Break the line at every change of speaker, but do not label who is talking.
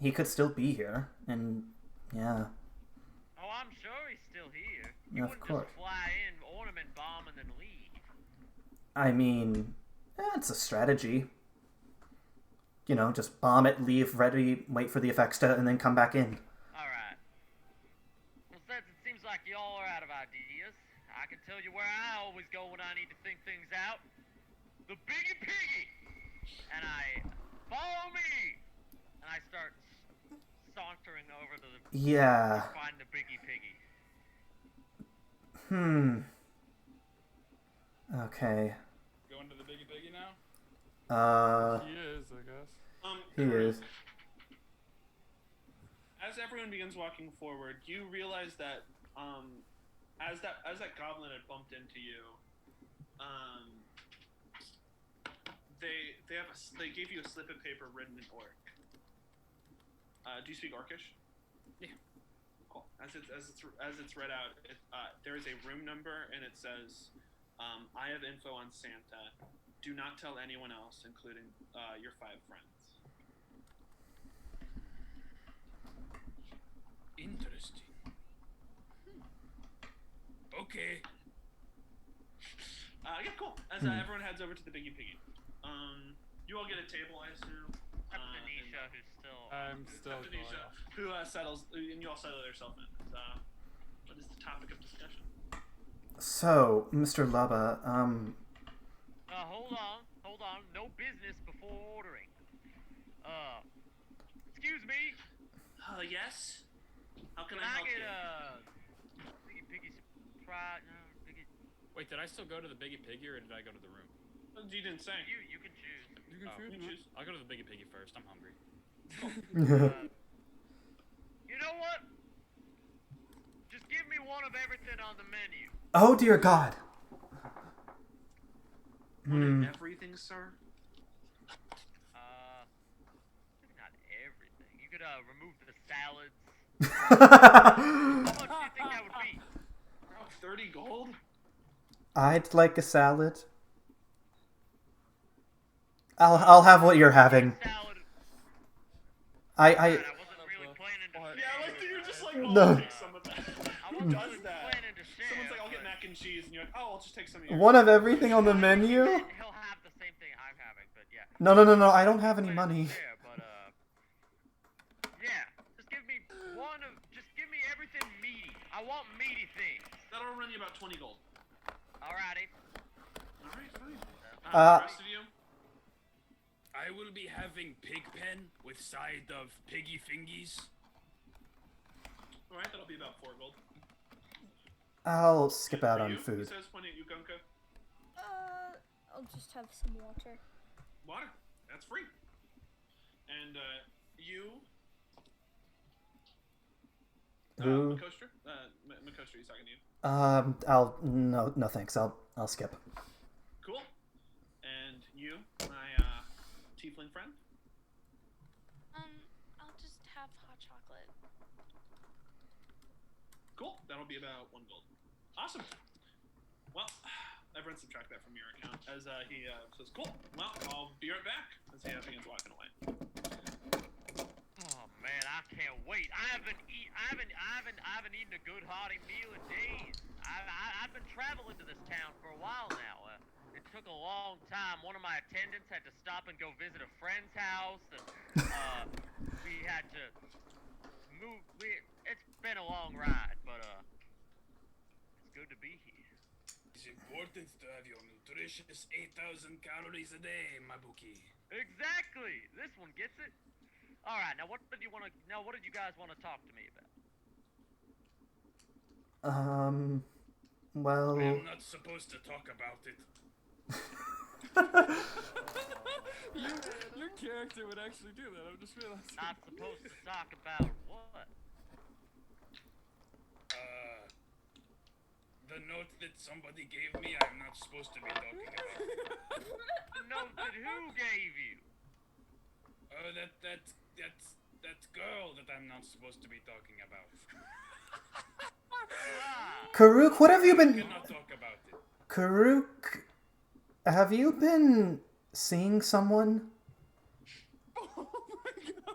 he could still be here, and yeah,
Oh, I'm sure he's still here.
Yeah,
You
of
wouldn't
course.
just fly in, ornament bomb, and then leave.
I mean, eh, it's a strategy. You know, just bomb it, leave, ready, wait for the effects to, and then come back in.
All right. Well, since it seems like y'all are out of ideas, I can tell you where I always go when I need to think things out. The Biggie Piggy! And I, follow me! And I start s- sauntering over to the,
Yeah.
find the Biggie Piggy.
Hmm. Okay.
Going to the biggie biggie now?
Uh,
He is, I guess.
Um,
he is.
as everyone begins walking forward, you realize that um, as that as that goblin had bumped into you, um, they they have a s- they gave you a slip of paper written in orc. Uh, do you speak Orcish?
Yeah.
Cool. As it's as it's as it's read out, it, uh, there is a room number and it says, um, "I have info on Santa. Do not tell anyone else, including uh, your five friends."
Interesting. Hmm. Okay. Hmm.
Uh, yeah, cool. As uh, everyone heads over to the Biggie Piggy, um, you all get a table, I assume. Uh,
That's
and- uh,
Anisha, who's still.
I'm still
except
going.
Anisha, who uh, settles, and you all settle yourself in. Uh, what is the topic of discussion?
So, Mr. Lubba, um,
Uh, hold on, hold on. No business before ordering. Uh, excuse me.
Uh, yes. How can,
Can
I
I
help
get
you?
a Biggie Piggy surprise? No, Biggie,
Wait, did I still go to the Biggie Piggy or did I go to the room?
Oh, you didn't say.
you you can choose.
You can
Oh.
shoot
You
him.
choose.
I'll go to the Biggie Piggy first. I'm hungry.
Uh, you know what? Just give me one of everything on the menu.
oh dear God.
Wanted
Hmm.
Everything, sir.
Uh, maybe not everything. You could uh remove the salads. How much do you think that would be?
Oh, Thirty gold.
I'd like a salad. I'll I'll have what you're having.
Salad.
I I
I wasn't really planning to.
Alright.
Yeah, I like that you're just like, oh,
Uh, No.
I'll take some of that.
I
Who
wasn't
does
really
that?
planning to share.
Someone's like, I'll get
but-
mac and cheese, and you're like, oh, I'll just take some of yours.
one of everything on the menu.
He'll have the same thing I'm having, but yeah.
No no no no. I don't have any money.
Yeah, but uh, yeah. Just give me one of. Just give me everything meaty. I want meaty things.
That'll run you about twenty gold.
Alrighty.
All right, fine.
Uh,
the rest of you.
I will be having pig pen with side of piggy fingies.
All right, that'll be about four gold.
I'll skip
Good
out
for
on
you, He
food.
says, pointing at you, Gunka.
Uh, I'll just have some water.
Water. That's free. And uh, you, uh,
Who?
Makostra? Uh, M- Makostra, he's talking to you.
Um. I'll no no thanks. I'll I'll skip.
Cool. And you, my uh, tiefling friend.
Um, I'll just have hot chocolate.
Cool. That'll be about one gold. Awesome. Well, everyone subtract that from your account. As uh, he uh, says, cool. Well, I'll be right back. As he uh, begins walking away.
Oh man, I can't wait. I haven't eat. I haven't. I haven't. I haven't eaten a good hearty meal in days. I, I, I've been traveling to this town for a while now. Uh, it took a long time. One of my attendants had to stop and go visit a friend's house, and uh, we had to move. We, it's been a long ride, but uh, it's good to be here.
It's important to have your nutritious 8,000 calories a day, my bookie.
Exactly. This one gets it. All right. Now, what did you want to? Now, what did you guys want to talk to me about?
Um. Well.
I'm not supposed to talk about it.
Your, your character would actually do that. I'm just realizing.
Not supposed to talk about what?
Uh, the note that somebody gave me, I'm not supposed to be talking about.
The note that who gave you?
Oh, that that that that girl that I'm not supposed to be talking about.
Ah,
Karuk, what have you
I
been?
cannot talk about it.
Karuk, have you been seeing someone?